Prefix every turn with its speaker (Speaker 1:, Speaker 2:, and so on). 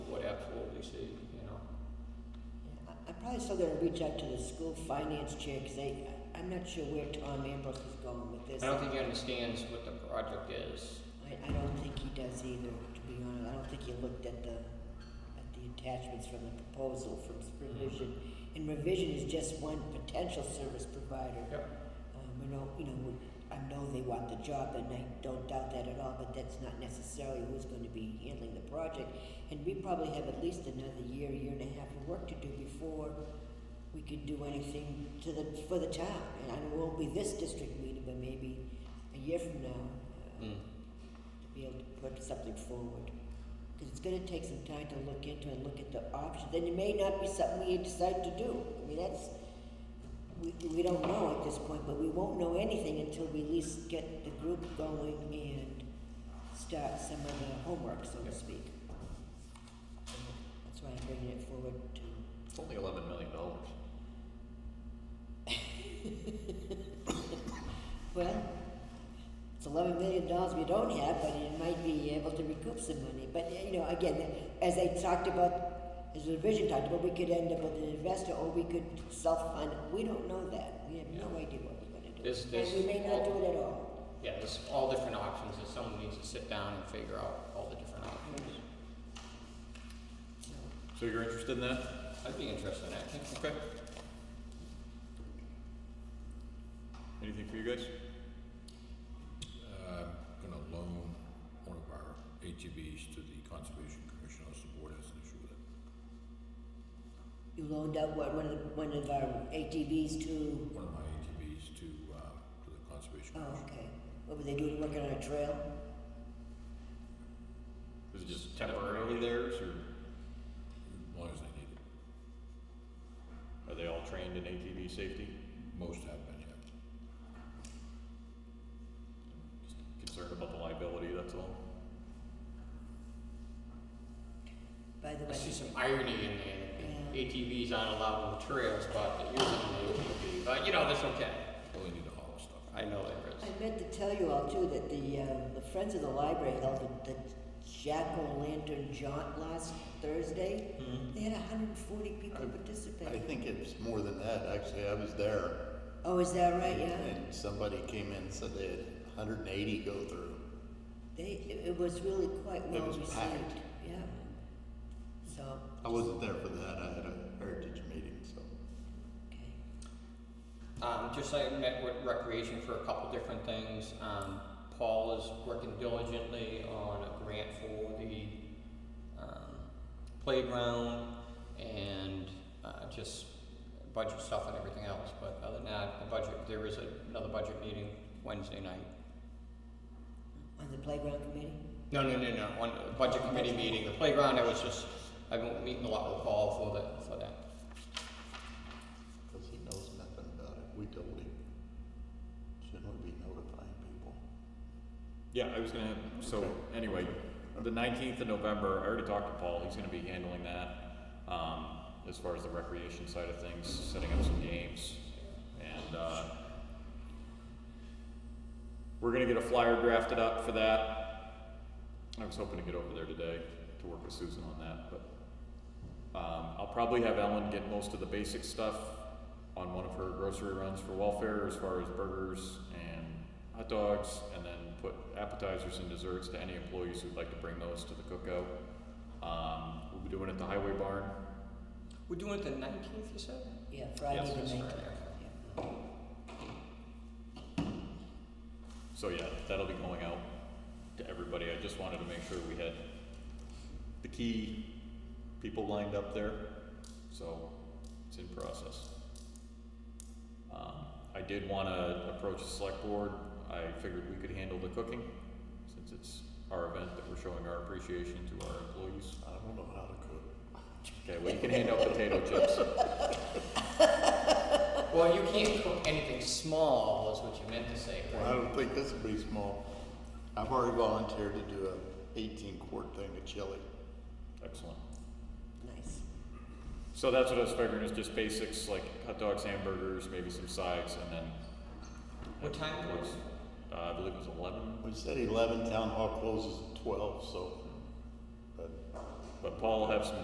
Speaker 1: also gonna reach out to the school finance chair, because they, I'm not sure where Tom Ambrose is going with this.
Speaker 2: I don't think he understands what the project is.
Speaker 1: I, I don't think he does either, to be honest. I don't think he looked at the, at the attachments from the proposal from
Speaker 2: Mm-hmm.
Speaker 1: revision. And revision is just one potential service provider.
Speaker 2: Yep.
Speaker 1: Um, I know, you know, we- I know they want the job, and I don't doubt that at all, but that's not necessarily who's going to be handling the project. And we probably have at least another year, year and a half of work to do before we could do anything to the, for the town. And I know it won't be this district meeting, but maybe a year from now, uh,
Speaker 2: Mm.
Speaker 1: to be able to put something forward. Because it's going to take some time to look into and look at the options, and it may not be something we decide to do. I mean, that's, we, we don't know at this point, but we won't know anything until we at least get the group going and start some of the homework, so to
Speaker 2: Yep.
Speaker 1: speak. So That's why I'm bringing it forward to,
Speaker 3: It's only eleven million dollars.
Speaker 1: well, it's eleven million dollars we don't have, but it might be able to recoup some money. But, uh, you know, again, as I talked about, as the vision talked about, we could end up with an investor or we could self-fund. We don't know that. We have no idea what we're gonna do.
Speaker 2: This- this-
Speaker 1: And we may not do it at all.
Speaker 2: Yeah, there's all different options, and someone needs to sit down and figure out all the different options.
Speaker 1: So,
Speaker 3: So you're interested in that?
Speaker 2: I'd be interested in that.
Speaker 3: Okay. Anything for you guys?
Speaker 4: Uh, gonna loan one of our ATVs to the Conservation Commission, unless the board has an issue with it.
Speaker 1: You loaned out what, one of, the- one of our ATVs to,
Speaker 4: One of my ATVs to, uh, to the Conservation
Speaker 1: oh,
Speaker 4: Commission.
Speaker 1: okay. What were they doing, working on a trail?
Speaker 3: Is it just temporarily theirs, or
Speaker 4: As long as they need it.
Speaker 3: are they all trained in ATV safety?
Speaker 4: Most have been, yeah.
Speaker 3: Just concerned about the liability, that's all.
Speaker 1: By the
Speaker 2: I
Speaker 1: way,
Speaker 2: see some irony in there. ATVs aren't allowed on the trails, but they're using the ATV, but you know, that's okay.
Speaker 4: Well, they need to haul stuff.
Speaker 2: I know there is.
Speaker 1: I meant to tell you all too that the, uh, the Friends of the Library held the, the Jack O' Lantern Jaunt last Thursday. They had hundred and forty people
Speaker 5: Mm-hmm. I
Speaker 1: participate.
Speaker 5: think it's more than that, actually, I was there,
Speaker 1: Oh, is that right? Yeah.
Speaker 5: and somebody came in and said they had hundred and eighty go through.
Speaker 1: They, it- it was really quite well
Speaker 5: was
Speaker 1: received,
Speaker 5: packed.
Speaker 1: yeah. So,
Speaker 5: I wasn't there for that, I had a heritage meeting, so.
Speaker 1: okay.
Speaker 2: Um, just I met with recreation for a couple different things. Um, Paul is working diligently on a grant for the um, playground and uh, just budget stuff and everything else. But other than that, the budget there is a, another budget meeting Wednesday night.
Speaker 1: On the playground committee?
Speaker 2: No, no, no, no. On the budget committee meeting, the playground. I was just I've been meeting a lot with Paul for that for that.
Speaker 5: Because he knows nothing about it, we told him. Shouldn't we be notifying people?
Speaker 3: Yeah, I was gonna have, so, anyway, the nineteenth of November, I already talked to Paul, he's gonna be handling that, um, as far as the recreation side of things, setting up some games, and, uh, we're gonna get a flyer drafted up for that. I was hoping to get over there today to work with Susan on that, but, um, I'll probably have Ellen get most of the basic stuff on one of her grocery runs for welfare as far as burgers and hot dogs, and then put appetizers and desserts to any employees who'd like to bring those to the cookout. Um, we'll be doing it at the Highway Barn.
Speaker 2: We're doing it the nineteenth, you said?
Speaker 1: Yeah, Friday
Speaker 2: Yes,
Speaker 1: the
Speaker 2: that's
Speaker 1: nineteenth.
Speaker 2: Friday.
Speaker 1: Yeah.
Speaker 3: So yeah, that'll be going out to everybody. I just wanted to make sure we had the key people lined up there, so it's in process. Um, I did want to approach the select board. I figured we could handle the cooking since it's our event that we're showing our appreciation to our employees.
Speaker 5: I don't know how to cook.
Speaker 3: Okay, well you can hand out potato chips.
Speaker 2: Well, you can't cook anything small, is what you meant to say,
Speaker 5: Well, I
Speaker 2: right?
Speaker 5: don't think this would be small. I've already volunteered to do a eighteen quart thing of chili.
Speaker 3: Excellent.
Speaker 1: Nice.
Speaker 3: So that's what I was figuring is just basics like hot dogs, hamburgers, maybe some sides, and then.
Speaker 2: What time was it?
Speaker 3: Uh, I believe it was eleven,
Speaker 5: We said eleven, town hall closes at twelve, so, but
Speaker 3: but Paul will have some